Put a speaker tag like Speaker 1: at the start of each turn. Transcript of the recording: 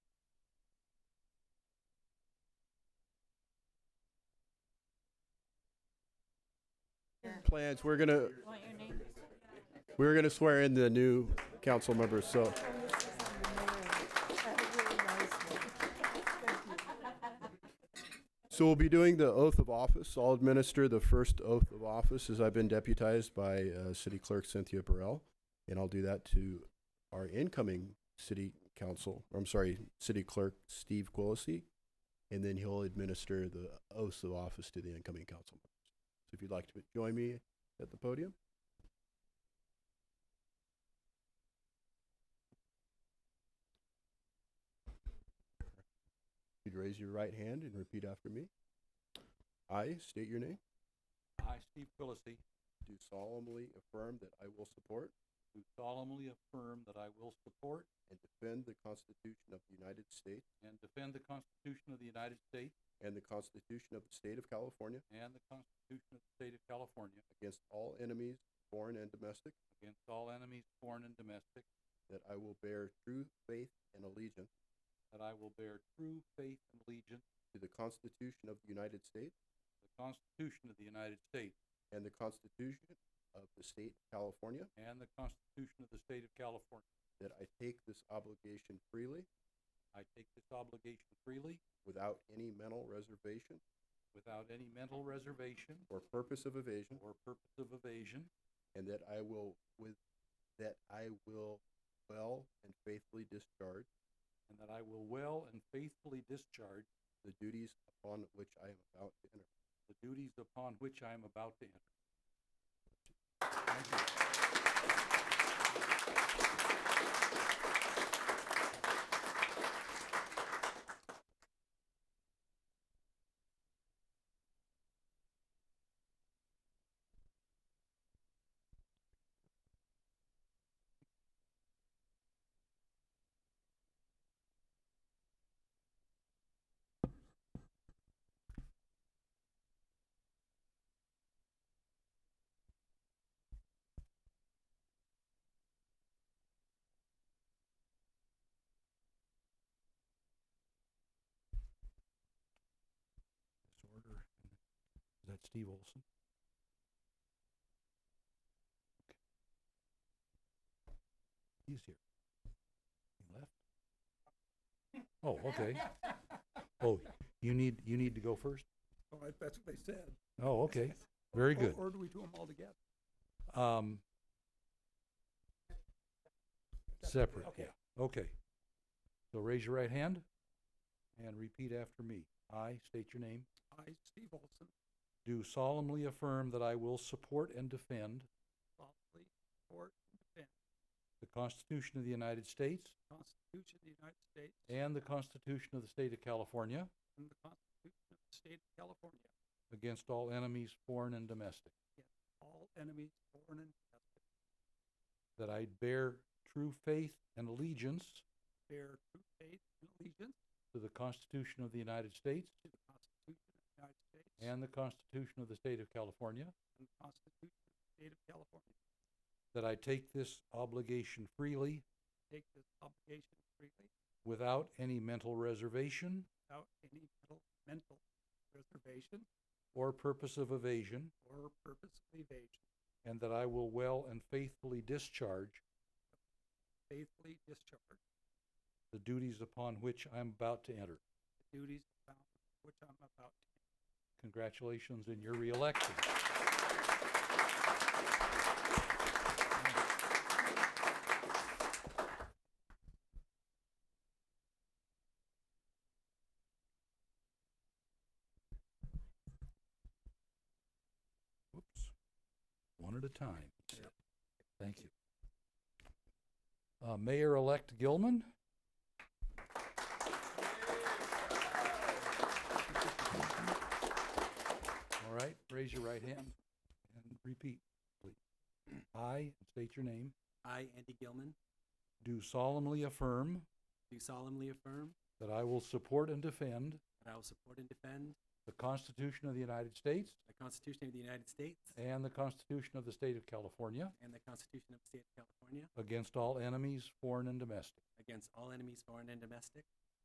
Speaker 1: plans. We're gonna we're gonna swear in the new council members. So so we'll be doing the oath of office. I'll administer the first oath of office as I've been deputized by uh, City Clerk Cynthia Burrell, and I'll do that to our incoming City Council. I'm sorry, City Clerk Steve Quillisi, and then he'll administer the oaths of office to the incoming council. So if you'd like to join me at the podium. You'd raise your right hand and repeat after me. I state your name.
Speaker 2: I, Steve Quillisi,
Speaker 1: Do solemnly affirm that I will support
Speaker 2: do solemnly affirm that I will support
Speaker 1: and defend the Constitution of the United States
Speaker 2: and defend the Constitution of the United States
Speaker 1: and the Constitution of the State of California
Speaker 2: and the Constitution of the State of California
Speaker 1: against all enemies, foreign and domestic,
Speaker 2: against all enemies, foreign and domestic,
Speaker 1: that I will bear true faith and allegiance
Speaker 2: that I will bear true faith and allegiance
Speaker 1: to the Constitution of the United States
Speaker 2: to the Constitution of the United States
Speaker 1: and the Constitution of the State of California,
Speaker 2: and the Constitution of the State of California.
Speaker 1: that I take this obligation freely
Speaker 2: I take this obligation freely
Speaker 1: without any mental reservation
Speaker 2: without any mental reservation
Speaker 1: or purpose of evasion,
Speaker 2: or purpose of evasion,
Speaker 1: and that I will with that I will well and faithfully discharge
Speaker 2: and that I will well and faithfully discharge
Speaker 1: the duties upon which I am about to enter.
Speaker 2: the duties upon which I am about to enter. Thank you. this order. Is that Steve Olson? Okay. He's here. He left? Oh, okay. Oh, you need, you need to go first?
Speaker 3: All right, Oh, that's what they said.
Speaker 2: Oh, okay. Very
Speaker 3: Or-
Speaker 2: good.
Speaker 3: Or do we do them all together?
Speaker 2: Um, separate, yeah.
Speaker 3: Okay.
Speaker 2: Okay. So raise your right hand and repeat after me. I state your name.
Speaker 3: I, Steve Olson,
Speaker 2: Do solemnly affirm that I will support and defend
Speaker 3: solemnly support and defend
Speaker 2: the Constitution of the United States
Speaker 3: the Constitution of the United States
Speaker 2: and the Constitution of the State of California
Speaker 3: and the Constitution of the State of California,
Speaker 2: against all enemies, foreign and domestic,
Speaker 3: all enemies, foreign and domestic,
Speaker 2: that I bear true faith and allegiance
Speaker 3: bear true faith and allegiance
Speaker 2: to the Constitution of the United States
Speaker 3: to the Constitution of the United States
Speaker 2: and the Constitution of the State of California,
Speaker 3: and the Constitution of the State of California,
Speaker 2: that I take this obligation freely
Speaker 3: take this obligation freely
Speaker 2: without any mental reservation
Speaker 3: without any mental, mental reservation
Speaker 2: or purpose of evasion,
Speaker 3: or purpose of evasion,
Speaker 2: and that I will well and faithfully discharge
Speaker 3: faithfully discharge
Speaker 2: the duties upon which I am about to enter.
Speaker 3: the duties upon which I'm about to
Speaker 2: Congratulations in your reelection. Whoops. One at a time. he said. Thank you. Uh, Mayor-elect Gilman? All right, raise your right hand and repeat, please. I state your name.
Speaker 4: I, Andy Gilman,
Speaker 2: Do solemnly affirm
Speaker 4: do solemnly affirm
Speaker 2: that I will support and defend
Speaker 4: that I will support and defend
Speaker 2: the Constitution of the United States
Speaker 4: the Constitution of the United States
Speaker 2: and the Constitution of the State of California
Speaker 4: and the Constitution of the State of California
Speaker 2: against all enemies, foreign and domestic,
Speaker 4: against all enemies, foreign and domestic,